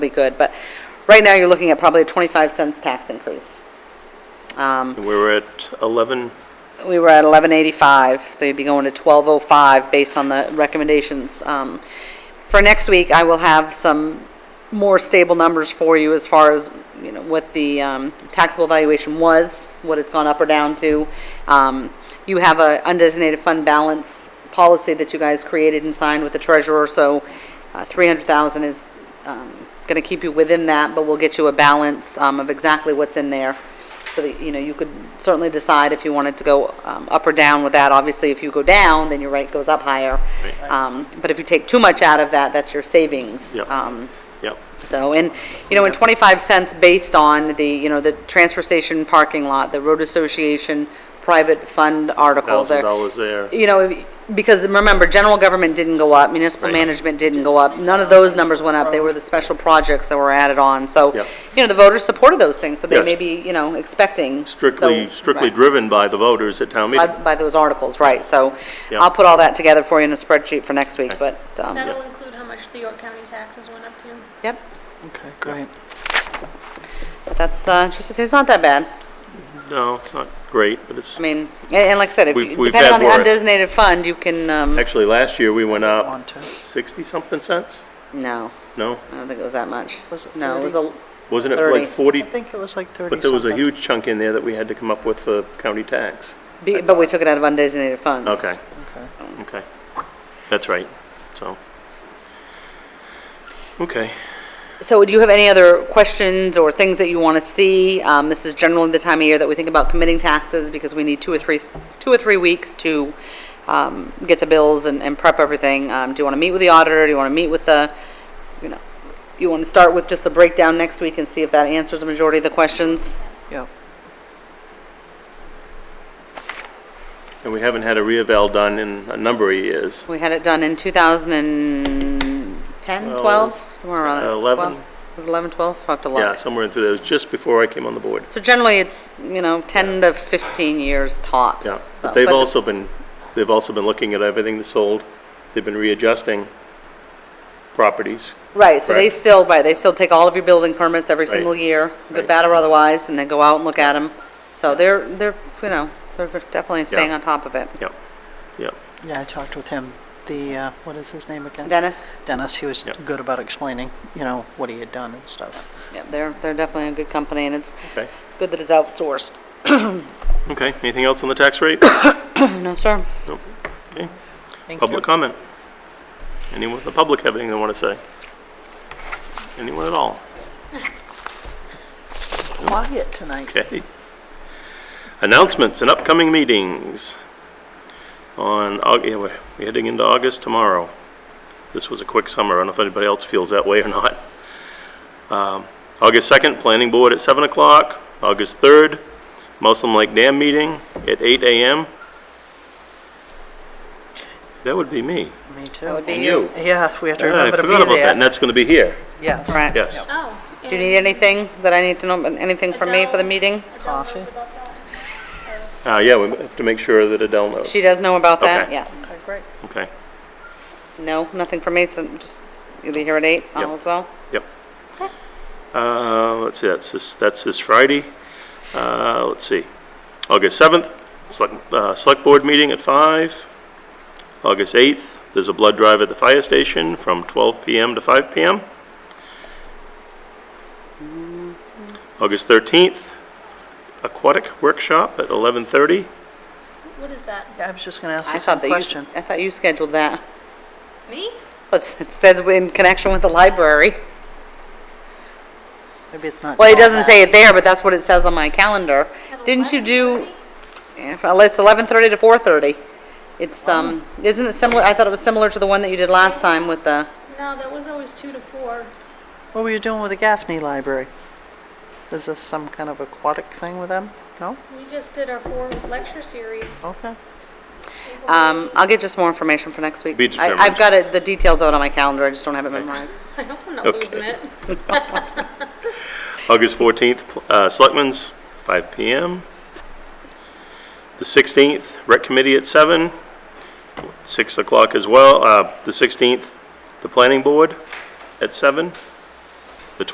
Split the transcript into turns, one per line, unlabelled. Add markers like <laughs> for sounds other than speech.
be good, but right now you're looking at probably a 25 cents tax increase. Um,
We were at 11,
We were at 1185, so you'd be going to 1205 based on the recommendations. Um, For next week, I will have some more stable numbers for you as far as, you know, what the um, taxable valuation was, what it's gone up or down to. Um, You have a undesignated fund balance policy that you guys created and signed with the treasurer, so uh, 300,000 is going to keep you within that, but we'll get you a balance um, of exactly what's in there so that, you know, you could certainly decide if you wanted to go um, up or down with that. Obviously, if you go down, then your rate goes up higher. Um, But if you take too much out of that, that's your savings.
Yep.
Um,
yep,
So, and, you know, in 25 cents based on the, you know, the transfer station parking lot, the road association private fund article. there-
$1,000 there.
you know, because remember, general government didn't go up, municipal
Right.
management didn't go up, none of those numbers went up, they were the special projects that were added on, so,
Yep.
you know, the voters supported those things, so they
Yes.
may be, you know, expecting. so-
Strictly, strictly
Right.
driven by the voters at town
By,
meeting.
by those articles, right, so
Yep.
I'll put all that together for you in a spreadsheet for next week, but, um,
That'll include how much the York County taxes went up to.
yep,
Okay, great.
that's, uh, just, it's not that bad.
No, it's not great, but it's,
I mean, and, and like I said, if,
We've-
you-
we've
depending on
had
the
worse.
undesignated fund, you can, um,
actually, last year, we went
Want
up
to?
60-something cents?
no,
No?
I don't think it was that much.
Was it
No, it was a,
Wasn't it
30.
like 40?
I think it was like 30 something.
But there was a huge chunk in there that we had to come up with for county tax.
be- but we took it out of undesignated funds.
Okay,
Okay.
okay. That's right, so. Okay.
So do you have any other questions or things that you want to see? Um, This is generally the time of year that we think about committing taxes because we need two or three, two or three weeks to um, get the bills and and prep everything. Um, Do you want to meet with the auditor? Do you want to meet with the, you know, you want to start with just the breakdown next week and see if that answers the majority of the questions?
Yep.
And we haven't had a reeval done in a number of years.
We had it done in 2010, 12, somewhere around that.
11.
12? Was it 11, 12? I'll have to
Uh, Yeah,
look.
somewhere in through those, just before I came on the board.
So generally, it's, you know, 10 to 15 years tops.
Yeah,
so-
but they've
the-
also been, they've also been looking at everything that's sold. They've been readjusting properties.
Right, so they
Correct.
still, right, they still take all of your building permits every
Right.
single year, good,
Right.
bad, or otherwise, and they go out and look at them. So they're, they're, you know, they're definitely staying
Yeah.
on top of it.
Yep, yep.
Yeah, I talked with him, the, uh, what is his name again?
Dennis?
Dennis, he was
Yep.
good about explaining, you know, what he had done and stuff.
Yeah, they're, they're definitely a good company, and it's
Okay,
good that it's outsourced. <clears throat>
okay. Anything else on the tax rate? <coughs>
No, sir.
Nope. Okay.
Thank you.
Public comment? Anyone in the public have anything they want to say? Anyone at all?
Quiet tonight.
Okay. Announcements and upcoming meetings. On, Au- yeah, we're we're heading into August tomorrow. This was a quick summer, I don't know if anybody else feels that way or not. Um, August 2nd, Planning Board at 7 o'clock. August 3rd, Muslim Lake Dam meeting at 8 AM. That would be me.
Me
That would
too.
be you.
Yeah, we have to
Yeah, I
remember to be there.
forgot about that, and that's going to be here,
Yes.
Correct.
yes.
Oh.
Do you need anything that I need to know, anything from me for the
Adele.
meeting?
Coffee.
Uh, yeah, we have to make sure that Adele knows.
She does know about that?
Okay.
Yes.
Great.
Okay,
No, nothing from me, so just, you'll be here at eight, all
Yep.
as well?
yep. Uh, let's see, that's this, that's this Friday. Uh, let's see, August 7th, select, uh, select board meeting at 5. August 8th, there's a blood drive at the fire station from 12 PM to 5 PM. August 13th, aquatic workshop at 11:30.
What is that?
Yeah, I was just going to ask
I
the
thought
same
that you,
question.
I thought you scheduled that. <laughs>
Me?
Let's- It says in connection with the library.
Maybe it's not.
Well, it
called
doesn't
that.
say it there, but that's what it says on my calendar. Didn't you do, uh, Yeah, it's 11:30 to 4:30. It's, um, isn't it similar, I thought it was similar to the one that you did last time with the,
No, that was always two to four.
What were you doing with the Gaffney Library? Is this some kind of aquatic thing with them? No?
We just did our four lecture series.
Okay.
um, I'll get just more information for next week.
Be
I- I've
determined.
got it, the details out on my calendar, I just don't have it memorized.
I hope I'm not
Okay.
losing it.
August 14th, pl- uh, Selectmen's, 5 PM. The 16th, Rec Committee at 7, 6 o'clock as well. Uh, The 16th, the Planning Board at 7.